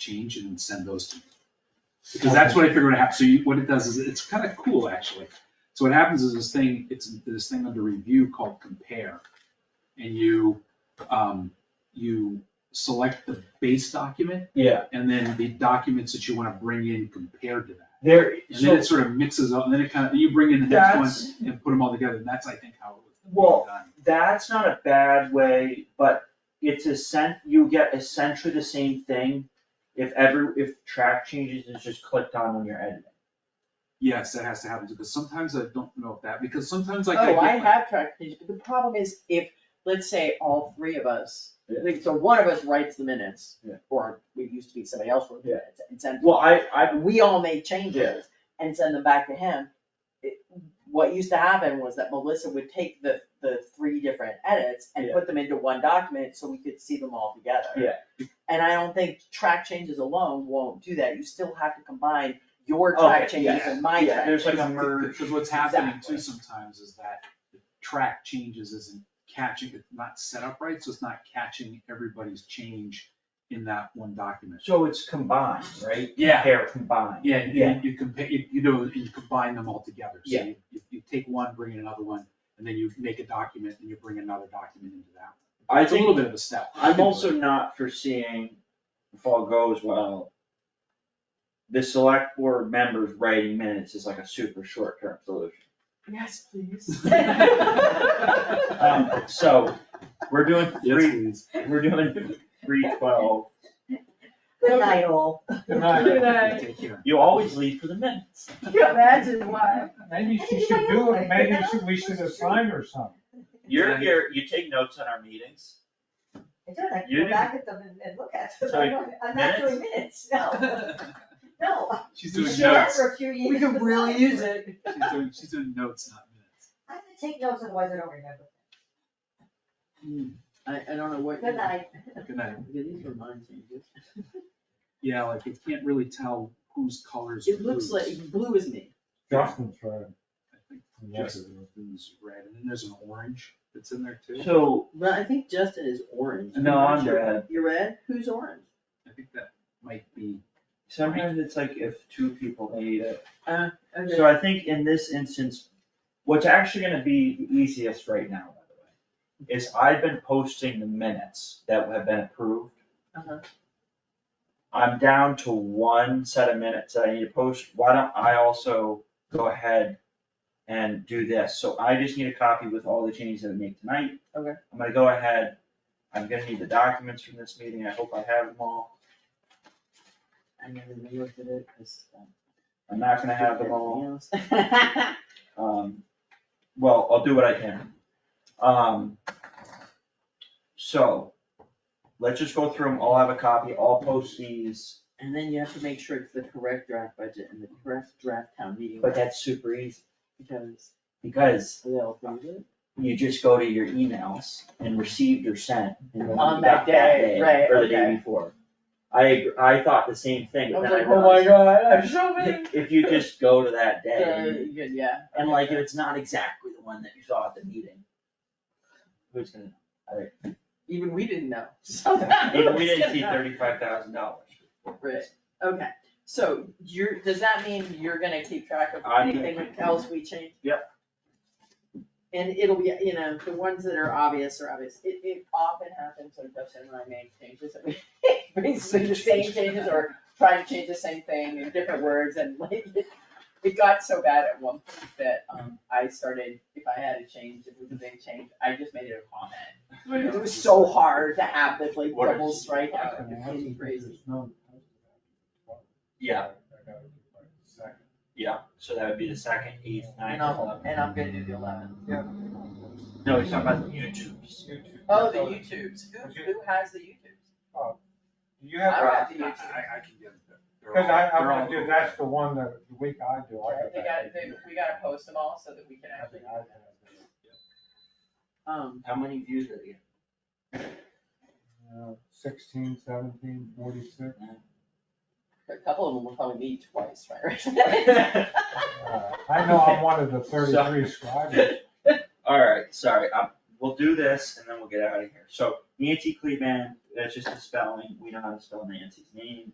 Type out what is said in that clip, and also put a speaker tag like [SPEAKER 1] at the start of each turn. [SPEAKER 1] change and send those to me. Because that's what I figured would happen, so you, what it does is, it's kind of cool, actually. So what happens is this thing, it's this thing under review called compare. And you, um, you select the base document
[SPEAKER 2] Yeah,
[SPEAKER 1] and then the documents that you wanna bring in compared to that.
[SPEAKER 2] there,
[SPEAKER 1] And then
[SPEAKER 2] so,
[SPEAKER 1] it sort of mixes up, and then it kind of, you bring in the next one and put them all together, and that's, I think, how it was
[SPEAKER 2] Well,
[SPEAKER 1] done.
[SPEAKER 2] that's not a bad way, but it's essen, you get essentially the same thing if every, if track changes is just clicked on when you're editing.
[SPEAKER 1] Yes, that has to happen, because sometimes I don't know if that, because sometimes like.
[SPEAKER 3] Oh,
[SPEAKER 1] get
[SPEAKER 3] I
[SPEAKER 1] my-
[SPEAKER 3] have track changes, but the problem is if, let's say, all three of us,
[SPEAKER 2] Yeah.
[SPEAKER 3] like, so one of us writes the minutes,
[SPEAKER 2] Yeah.
[SPEAKER 3] or it used to be somebody else wrote the
[SPEAKER 2] Yeah.
[SPEAKER 3] minutes, and sends,
[SPEAKER 2] Well, I, I,
[SPEAKER 3] and we all make
[SPEAKER 2] Yeah.
[SPEAKER 3] changes and send them back to him. It- What used to happen was that Melissa would take the, the three different edits and
[SPEAKER 2] Yeah.
[SPEAKER 3] put them into one document so we could see them all together.
[SPEAKER 2] Yeah.
[SPEAKER 3] And I don't think track changes alone won't do that, you still have to combine your
[SPEAKER 2] Okay,
[SPEAKER 3] track changes
[SPEAKER 1] yeah,
[SPEAKER 3] and my track.
[SPEAKER 2] yeah, there's like a
[SPEAKER 3] changes.
[SPEAKER 2] merge.
[SPEAKER 1] Because what's happening too
[SPEAKER 3] Exactly.
[SPEAKER 1] sometimes is that the track changes isn't catching, it's not set up right, so it's not catching everybody's change in that one document.
[SPEAKER 2] so it's combined, right?
[SPEAKER 1] Yeah.
[SPEAKER 2] They're combined.
[SPEAKER 1] Yeah, and
[SPEAKER 2] Yeah.
[SPEAKER 1] you- you compare, you you know, and you combine them all together. So
[SPEAKER 2] Yeah.
[SPEAKER 1] you- You, you take one, bring in another one, and then you make a document, and you bring another document into that.
[SPEAKER 2] I
[SPEAKER 1] It's a little
[SPEAKER 2] think,
[SPEAKER 1] bit of a step.
[SPEAKER 2] I'm also not foreseeing, if all goes well, the select board members writing minutes is like a super short-term solution.
[SPEAKER 3] Yes, please.
[SPEAKER 2] Um, so, we're doing
[SPEAKER 1] Yes,
[SPEAKER 2] three,
[SPEAKER 1] please.
[SPEAKER 2] we're doing three twelve.
[SPEAKER 4] Good night, all.
[SPEAKER 2] Good night.
[SPEAKER 4] Good night.
[SPEAKER 1] Take care.
[SPEAKER 2] You always leave for the minutes.
[SPEAKER 4] Imagine why.
[SPEAKER 5] Maybe she should do it, maybe she- we should assign her something.
[SPEAKER 2] You're
[SPEAKER 1] Yeah.
[SPEAKER 2] here, you take notes on our meetings.
[SPEAKER 4] I don't,
[SPEAKER 2] You
[SPEAKER 4] I can go
[SPEAKER 2] didn't-
[SPEAKER 4] back at them and, and look at them.
[SPEAKER 2] So,
[SPEAKER 4] I don't- I'm not doing minutes, no, no.
[SPEAKER 1] She's
[SPEAKER 2] You
[SPEAKER 1] doing
[SPEAKER 2] should
[SPEAKER 4] Did that
[SPEAKER 1] notes.
[SPEAKER 4] for a few years.
[SPEAKER 3] We could really use it.
[SPEAKER 1] She's doing, she's doing notes, not minutes.
[SPEAKER 4] I have to take notes, otherwise I don't remember.
[SPEAKER 2] Hmm.
[SPEAKER 3] I, I don't know what.
[SPEAKER 4] Good night.
[SPEAKER 1] Good night.
[SPEAKER 3] Yeah, these are mine, so you just-
[SPEAKER 1] Yeah, like you can't really tell whose colors.
[SPEAKER 3] It looks like, blue is me.
[SPEAKER 5] Justin's right.
[SPEAKER 1] Justin's red, and then there's an orange that's in there too.
[SPEAKER 2] So,
[SPEAKER 3] Well, I think Justin is orange.
[SPEAKER 2] No, I'm
[SPEAKER 3] You're-
[SPEAKER 2] red.
[SPEAKER 3] You're red? Who's orange?
[SPEAKER 1] I think that might be,
[SPEAKER 2] sometimes it's like if two people hate it.
[SPEAKER 3] Uh, okay.
[SPEAKER 2] So I think in this instance, what's actually gonna be the easiest right now, by the way, is I've been posting the minutes that have been approved.
[SPEAKER 3] Uh-huh.
[SPEAKER 2] I'm down to one set of minutes that I need to post. Why don't I also go ahead and do this? So I just need a copy with all the changes that I make tonight.
[SPEAKER 3] Okay.
[SPEAKER 2] I'm gonna go ahead, I'm gonna need the documents from this meeting, I hope I have them all.
[SPEAKER 3] I never even looked at it, 'cause, um,
[SPEAKER 2] I'm not gonna have them all,
[SPEAKER 3] everything else.
[SPEAKER 2] um, well, I'll do what I can. Um, so, let's just go through them, I'll have a copy, I'll post these,
[SPEAKER 3] And then you have to make sure it's the correct draft budget and the correct draft town meeting.
[SPEAKER 2] but that's super easy,
[SPEAKER 3] Because
[SPEAKER 2] because
[SPEAKER 3] they'll approve it.
[SPEAKER 2] you just go to your emails and received or sent. and then
[SPEAKER 3] On
[SPEAKER 2] you got
[SPEAKER 3] that
[SPEAKER 2] that
[SPEAKER 3] day,
[SPEAKER 2] day,
[SPEAKER 3] right,
[SPEAKER 2] Or the day
[SPEAKER 3] okay.
[SPEAKER 2] before. I, ag- I thought the same thing, but then I realized,
[SPEAKER 3] "Oh god,
[SPEAKER 2] I'm
[SPEAKER 3] so
[SPEAKER 2] if you just go to that
[SPEAKER 3] So,
[SPEAKER 2] day,
[SPEAKER 3] you- Uh, yeah.
[SPEAKER 2] and like, if it's not exactly the one that you saw at the meeting, who's gonna,
[SPEAKER 3] Even we didn't know, so.
[SPEAKER 2] Even we didn't see thirty-five thousand dollars.
[SPEAKER 3] Right, okay, so you're, does that mean you're gonna keep track of
[SPEAKER 2] I'm gonna
[SPEAKER 3] anything
[SPEAKER 2] keep-
[SPEAKER 3] else we change?
[SPEAKER 2] Yep.
[SPEAKER 3] And it'll be, you know, the ones that are obvious are obvious, it, it often happens when Justin and I make changes, and we basically the same changes or try to change the same thing in different words, and like, it, it got so bad at one point that, um, I started, if I had a change, if it was a big change, I just made it a comment. It was so hard to have this like
[SPEAKER 2] What is-
[SPEAKER 3] double strikeout, Uh, it was crazy.
[SPEAKER 2] Yeah. Yeah, so that would be the second, eighth, ninth,
[SPEAKER 3] And I'm,
[SPEAKER 2] eleventh.
[SPEAKER 3] and I'm gonna do the eleven.
[SPEAKER 2] No, he's talking about the YouTubes.
[SPEAKER 3] Oh, the YouTubes, who, who has the YouTubes?
[SPEAKER 5] You
[SPEAKER 3] I don't
[SPEAKER 5] have,
[SPEAKER 3] have the
[SPEAKER 1] I, I I
[SPEAKER 3] YouTubes.
[SPEAKER 1] can get them. They're
[SPEAKER 5] because
[SPEAKER 1] all-
[SPEAKER 5] I, I'm
[SPEAKER 1] they're all
[SPEAKER 5] gonna do,
[SPEAKER 1] over.
[SPEAKER 5] that's the one that, the week I do, I
[SPEAKER 3] They got,
[SPEAKER 5] go back.
[SPEAKER 3] they, we gotta post them all so that we can actually. Um,
[SPEAKER 2] How many views did it get?
[SPEAKER 5] Uh, Sixteen, seventeen, forty-six.
[SPEAKER 3] a couple of them will probably meet twice, right?
[SPEAKER 5] Uh, I know I'm one of the thirty-three scribes.
[SPEAKER 2] Alright, sorry, um, we'll do this and then we'll get out of here. So Nancy Cleveland, that's just the spelling, we know how to spell Nancy's name.